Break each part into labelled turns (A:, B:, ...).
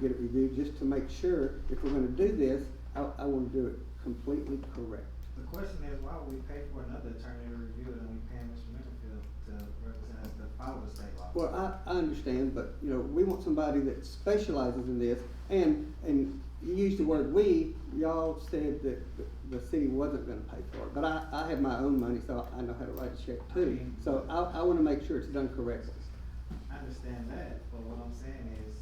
A: get it reviewed, just to make sure, if we're gonna do this, I, I wanna do it completely correct.
B: The question is, why would we pay for another attorney to review it and we pay Mr. Middlefield to represent us to follow the state law?
A: Well, I, I understand, but, you know, we want somebody that specializes in this, and, and you used the word we, y'all said that the, the city wasn't gonna pay for it, but I, I have my own money, so I know how to write a check too, so I, I wanna make sure it's done correctly.
B: I understand that, but what I'm saying is,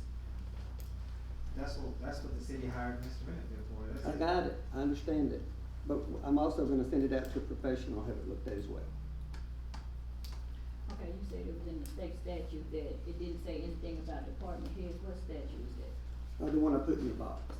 B: that's what, that's what the city hired Mr. Middlefield for, that's
A: I
B: it.
A: got it, I understand it, but I'm also gonna send it out to a professional, have it looked at as well.
C: Okay, you said it was in the state statute that it didn't say anything about department heads, what statute is that?
A: Uh, the one I put in your box.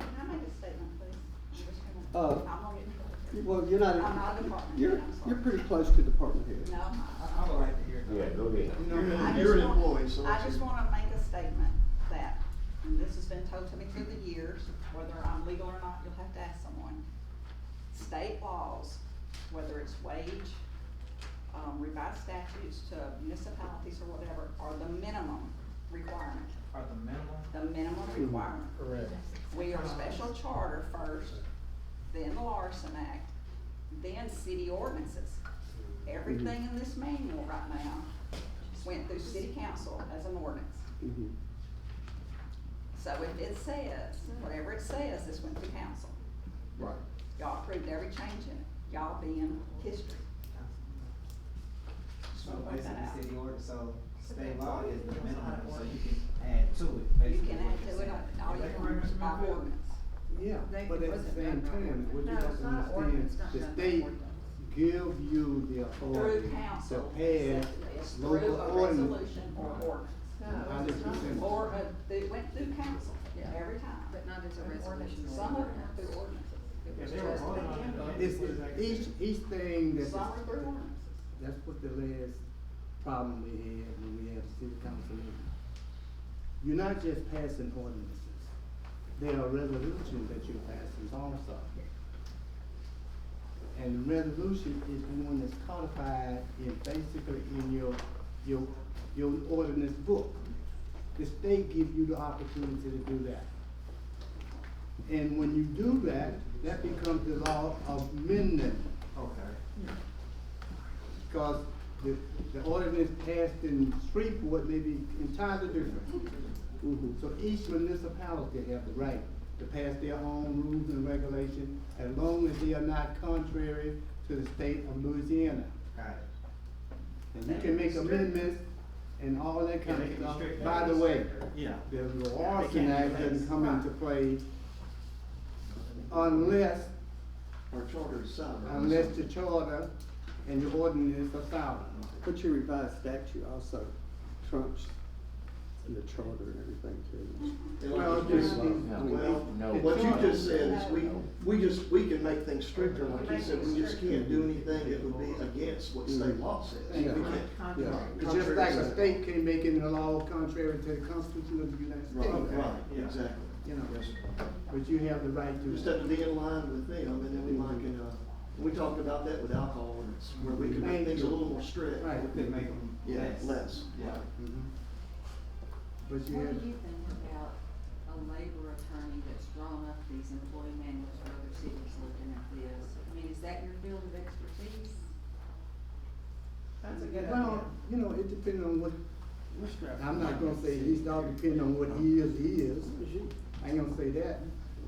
D: Can I make a statement, please? I'm just gonna,
A: Uh,
D: I'm gonna get in trouble.
A: Well, you're not,
D: I'm not a department
A: you're,
D: head, I'm sorry.
A: you're pretty close to department head.
D: No, I'm not.
B: I, I would like to hear.
E: Yeah, go ahead.
B: You know,
D: I just
F: You're an
D: want-
F: employee, so
D: I
F: it's-
D: just wanna make a statement that, and this has been told to me through the years, whether I'm legal or not, you'll have to ask someone. State laws, whether it's wage, um, revised statutes to municipalities or whatever, are the minimum requirement,
B: Are the minimum,
D: the minimum requirement.
F: Correct.
D: We are special charter first, then the Larson Act, then city ordinances. Everything in this manual right now went through city council as an ordinance.
F: Mm-hmm.
A: Mhm.
D: So if it says, whatever it says, this went through council.
F: Right.
D: Y'all approved every change in it, y'all being history.
B: so
D: Something like
B: basically,
D: that.
B: city order, so state law is the minimum, so you can add to it,
D: You
B: basically.
D: can
B: what you're saying.
D: add to it, all
B: Is
D: you
B: that
D: want
B: correct,
D: is
B: Mr.
D: by
B: Middlefield?
D: ordinance.
F: Yeah,
G: They-
F: but
G: it
F: at the
G: wasn't
F: same
G: done by
F: time,
G: ordinance.
F: what you
G: No,
F: have
G: it's
F: to
G: not an
F: understand,
G: ordinance, not
F: the
G: done by
F: state
G: ordinance.
F: give you the
D: Through
F: authority to
D: council, it says it's
F: pass
D: through
F: local
D: a
F: ordinance.
D: resolution or
A: Oh.
D: ordinance.
G: No,
F: Hundred
G: it's not.
F: percent.
D: Or, uh, it went through council
G: Yeah.
D: every time.
G: But not as a resolution.
D: Some of them went through ordinances.
G: It was
B: If they were
G: just-
B: voting on it, uh,
F: It's,
B: what is that?
F: each, each thing that's,
D: Some were through ordinances.
F: that's what the last problem we had when we had the city council meeting. You're not just passing ordinances, there are resolutions that you're passing also. And the resolution is the one that's codified in basically in your, your, your ordinance book. The state give you the opportunity to do that. And when you do that, that becomes the law of amendment,
B: Okay.
F: because the, the ordinance passed in Shreveport may be entirely different.
A: Mhm.
F: So each municipality have the right to pass their own rules and regulations as long as they are not contrary to the state of Louisiana.
B: Got it.
F: And you can make amendments and all that kind of stuff. By the way,
B: Yeah.
F: the
B: They
F: Larson
B: can't
F: Act
B: do
F: doesn't
B: that.
F: come into play
B: Uh,
F: unless,
H: Our charter is sound.
F: unless the charter and the ordinance are silent.
A: But your revised statute also trumps the charter and everything too.
F: Well, just-
H: Well,
E: No.
H: what you just said is we, we just, we can make things stricter, like you said, we just can't do anything that would be against what state law says. We
F: Yeah.
H: can't.
A: Yeah.
F: It's just like a state can make any law contrary to the Constitution of the United States.
H: Right, right, exactly.
F: You know.
H: Yes, sir.
F: But you have the right
H: You just
F: to.
H: have to be in line with them, and then we might can, uh, we talked about that with alcohol ordinance, where we can make things a little more strict.
F: Right.
B: We could make them
H: Yeah,
B: less.
H: less,
B: Yeah.
H: right.
F: Mhm. But you
G: What
F: have,
G: do you think about a labor attorney that's drawn up these employee manuals for other cities looking at this? I mean, is that your field of expertise?
B: That's a good idea.
F: well, you know, it depends on what, I'm not gonna say it's all depending on what he is, he is. I ain't gonna say that,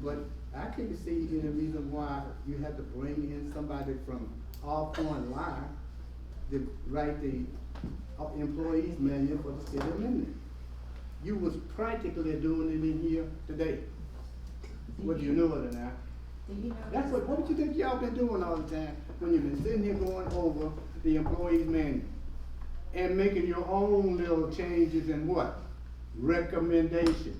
F: but I can not see any reason why you have to bring in somebody from all foreign line to write the uh, employees manual for the city of Minden. You was practically doing it in here today, whether you knew it or not.
C: Do you know?
F: That's what, what you think y'all been doing all the time, when you've been sitting here going over the employees manual? And making your own little changes and what? Recommendations.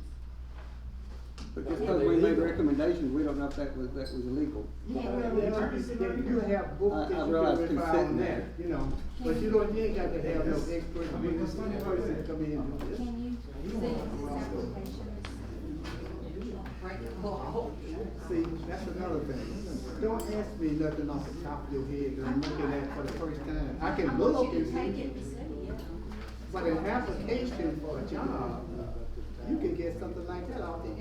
A: But just because we made recommendations, we don't know if that was, that was illegal.
F: You have books
A: I- I
F: that you
A: realize
F: can rely
A: consent
F: on that,
A: matter.
F: you know, but you don't, you ain't got to have no expert,
B: I mean,
F: witness
B: that's funny
F: person
B: about that.
F: come in and do this.
I: Can you see if this application
G: Break the law?
F: See, that's another thing. Don't ask me nothing off the top of your head that I'm looking at for the first time. I can
I: you
F: look and
I: can
F: see.
I: take it and see, yeah.
F: But an application for a job you can get something like that off the